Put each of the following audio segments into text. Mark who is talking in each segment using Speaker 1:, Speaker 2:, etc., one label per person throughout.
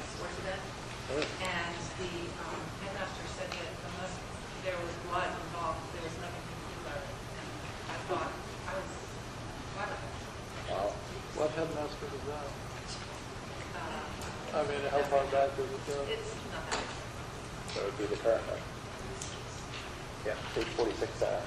Speaker 1: Oh.
Speaker 2: the um, headmaster said that unless there was blood involved, there was nothing to do about it. And I thought, I was, what?
Speaker 3: Wow. What headmaster was that?
Speaker 2: Uh,
Speaker 1: Oh.
Speaker 3: I mean, how far back does it go?
Speaker 2: It's not that.
Speaker 4: That would be the current one. Yeah, page 46, uh,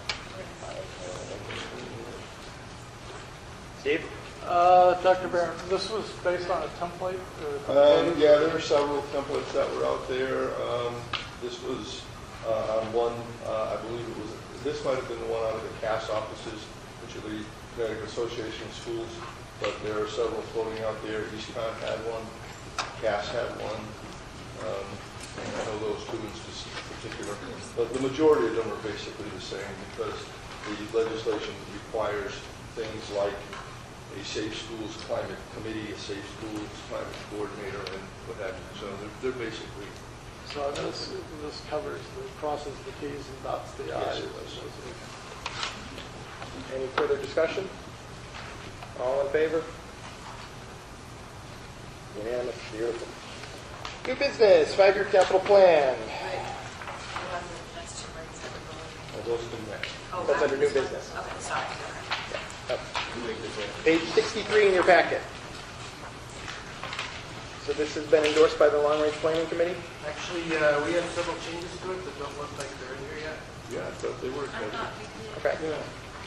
Speaker 4: Steve?
Speaker 3: Uh, Dr. Barron, this was based on a template? or-
Speaker 5: Um, yeah, there are several templates that were out there. Um, this was, uh, on one, uh, I believe it was, this might have been the one out of the CAS offices, which are the Connecticut Association of Schools, but there are several floating out there. Eastcon had one, CAS had one, um, and I know those two in spec- particular. But the majority of them are basically the same because the legislation requires things like a safe schools climate committee, a safe schools climate coordinator, and what have you. So they're, they're basically,
Speaker 3: So this, this covers, the crosses the Ts and dots the
Speaker 5: Yes,
Speaker 3: Is.
Speaker 5: it was.
Speaker 1: Any further discussion? All in favor?
Speaker 4: Unanimous, beautiful.
Speaker 1: New business, five-year capital plan.
Speaker 2: That's too late.
Speaker 5: well, those come next.
Speaker 2: Oh,
Speaker 1: That's
Speaker 2: I-
Speaker 1: under new business.
Speaker 2: Okay, sorry. Okay.
Speaker 1: Page 63 in your packet. So this has been endorsed by the Long Range Planning Committee?
Speaker 6: Actually, uh, we have several changes to it that don't look like they're in here yet.
Speaker 5: Yeah, I thought they were.
Speaker 2: I thought we did.
Speaker 1: Okay.
Speaker 5: Yeah.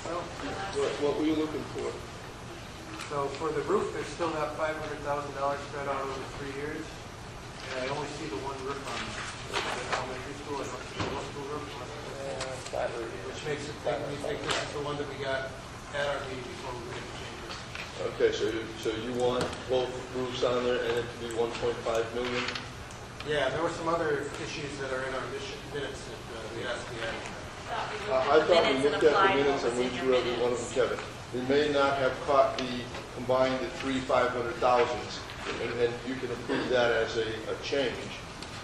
Speaker 6: Well,
Speaker 5: What, what were you looking for?
Speaker 6: So for the roof, there's still that $500,000 spread out over three years. And I only see the one roof on the elementary school, I don't see the middle school roof on it, Which makes it think, we think this is the one that we got at our meeting before we made the changes.
Speaker 5: Okay, so, you- so you want both roofs on there and it to be 1.5 million?
Speaker 6: Yeah, there were some other issues that are in our mission- minutes that uh, we asked the admin.
Speaker 5: Uh, I thought we looked at the minutes and went through every one of them, Kevin. We may not have caught the, combined the three 500,000s, and and you can approve that as a, a change,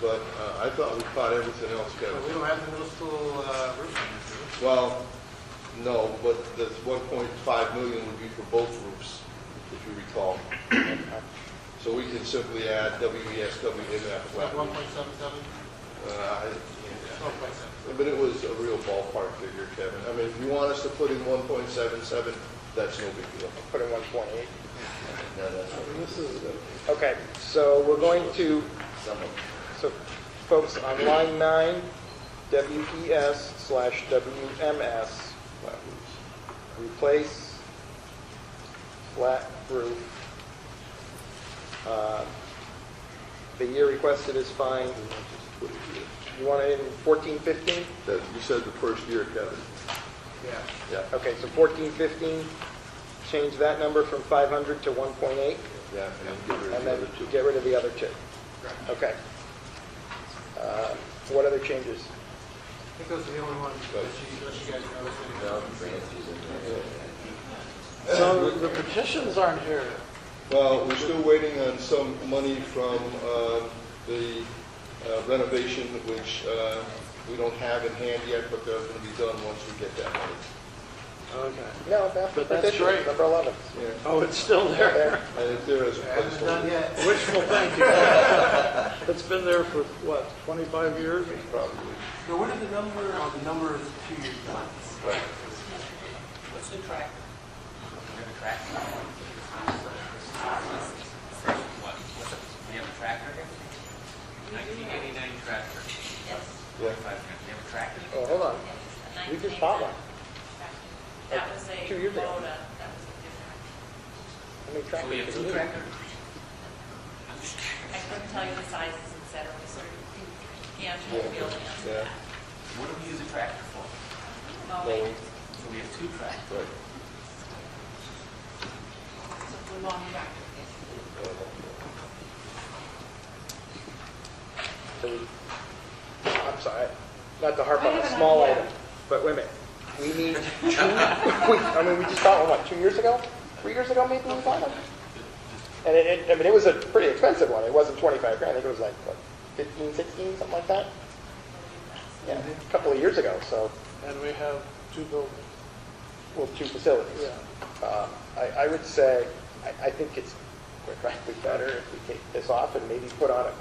Speaker 5: but uh, I thought we caught everything else, Kevin.
Speaker 6: But we don't have the middle school uh, roof on this, do we?
Speaker 5: Well, no, but the 1.5 million would be for both roofs, if you recall. So we can simply add E WESW in that
Speaker 6: It's
Speaker 5: flat.
Speaker 6: like 1.77,
Speaker 5: Uh,
Speaker 6: It's
Speaker 5: I-
Speaker 6: 1.7.
Speaker 5: But it was a real ballpark figure, Kevin. I mean, if you want us to put in 1.77, that's no big deal.
Speaker 1: Put in 128.
Speaker 5: No, that's not-
Speaker 3: This is,
Speaker 1: Okay, so we're going to, so folks, on line nine, WES slash WMS,
Speaker 5: flat roofs.
Speaker 1: replace flat roof. Uh, The year requested is fine.
Speaker 5: I'll just put it here.
Speaker 1: You want it in 14, 15?
Speaker 5: That- You said the first year, Kevin.
Speaker 6: Yeah.
Speaker 5: Yeah,
Speaker 1: Okay, so 14, 15, change that number from 500 to 1.8,
Speaker 5: yeah, and then get rid of
Speaker 1: and
Speaker 5: the
Speaker 1: then
Speaker 5: other two.
Speaker 1: get rid of the other two.
Speaker 6: Correct.
Speaker 1: Okay. Uh, What other changes?
Speaker 6: I think those are the only ones that you, that you guys noticed. anyway.
Speaker 3: so the petitions aren't here.
Speaker 5: Well, we're still waiting on some money from um, the uh, renovation, which uh, we don't have in hand yet, but they're going to be done once we get that money.
Speaker 3: Okay.
Speaker 1: No, that's
Speaker 3: But that's
Speaker 1: petition,
Speaker 3: great.
Speaker 1: number 11.
Speaker 5: Yeah,
Speaker 3: Oh, it's still there.
Speaker 5: And if there is a
Speaker 6: Haven't done
Speaker 5: placeholder,
Speaker 6: yet.
Speaker 3: Wishful thinking. It's been there for, what, 25 years?
Speaker 5: probably.
Speaker 6: So what are the number, oh, the number is two years back.
Speaker 7: What's the track? We have a track. What, what's up? We have a tractor? Nineteen eighty-nine tractor.
Speaker 5: Yeah.
Speaker 7: Five, we have a tractor.
Speaker 1: Oh, hold on. We just bought one.
Speaker 2: That was a
Speaker 1: Two years ago.
Speaker 2: Kubota, that was a different.
Speaker 1: How many
Speaker 7: So
Speaker 1: tractors do
Speaker 7: we have two
Speaker 1: we need?
Speaker 7: tractors. I'm just
Speaker 2: I couldn't tell you the sizes, et cetera, we sort of, yeah, I'm trying to be able to answer
Speaker 5: Yeah.
Speaker 2: that.
Speaker 7: What do we use a tractor for?
Speaker 2: Mowing,
Speaker 7: So we have two tractors.
Speaker 5: Right.
Speaker 2: the long track.
Speaker 1: So we- I'm sorry, not to harp on a small item, but wait a minute. We need two, we, I mean, we just bought one, what, two years ago? Three years ago, maybe we bought one? And it, it- I mean, it was a pretty expensive one. It wasn't 25 grand. I think it was like, what, 15, 16, something like that? Yeah, a couple of years ago, so,
Speaker 3: And we have two buildings.
Speaker 1: well, two facilities.
Speaker 3: Yeah.
Speaker 1: Um, I, I would say, I, I think it's quite frankly better if we take this off and maybe put on a